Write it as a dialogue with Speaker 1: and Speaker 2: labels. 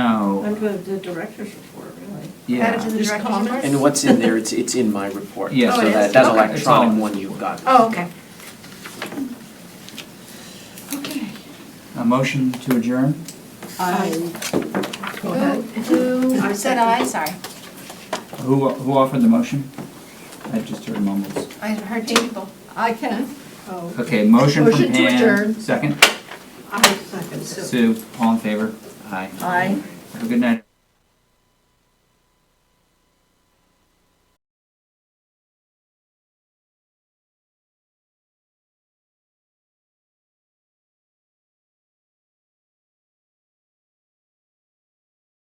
Speaker 1: No,
Speaker 2: Under the director's report, really.
Speaker 3: Add
Speaker 1: yeah,
Speaker 3: it to the
Speaker 2: Just
Speaker 3: director's
Speaker 2: comment.
Speaker 3: report?
Speaker 4: And what's in there, it's, it's in my report.
Speaker 1: Yeah.
Speaker 3: Oh,
Speaker 4: So
Speaker 3: it
Speaker 4: that,
Speaker 3: is?
Speaker 4: that
Speaker 3: Okay.
Speaker 4: electronic one you've got.
Speaker 3: Oh, okay. Okay.
Speaker 1: a motion to adjourn?
Speaker 2: Go ahead.
Speaker 3: Who, who said aye? Sorry.
Speaker 1: Who, who offered the motion? I just heard mumbles.
Speaker 3: I heard two people.
Speaker 2: I can. Oh,
Speaker 1: Okay, motion from
Speaker 2: Motion to
Speaker 1: Pam,
Speaker 2: adjourn.
Speaker 1: second,
Speaker 2: I second.
Speaker 1: Sue, all in favor? Aye.
Speaker 3: Aye.
Speaker 1: Have a good night.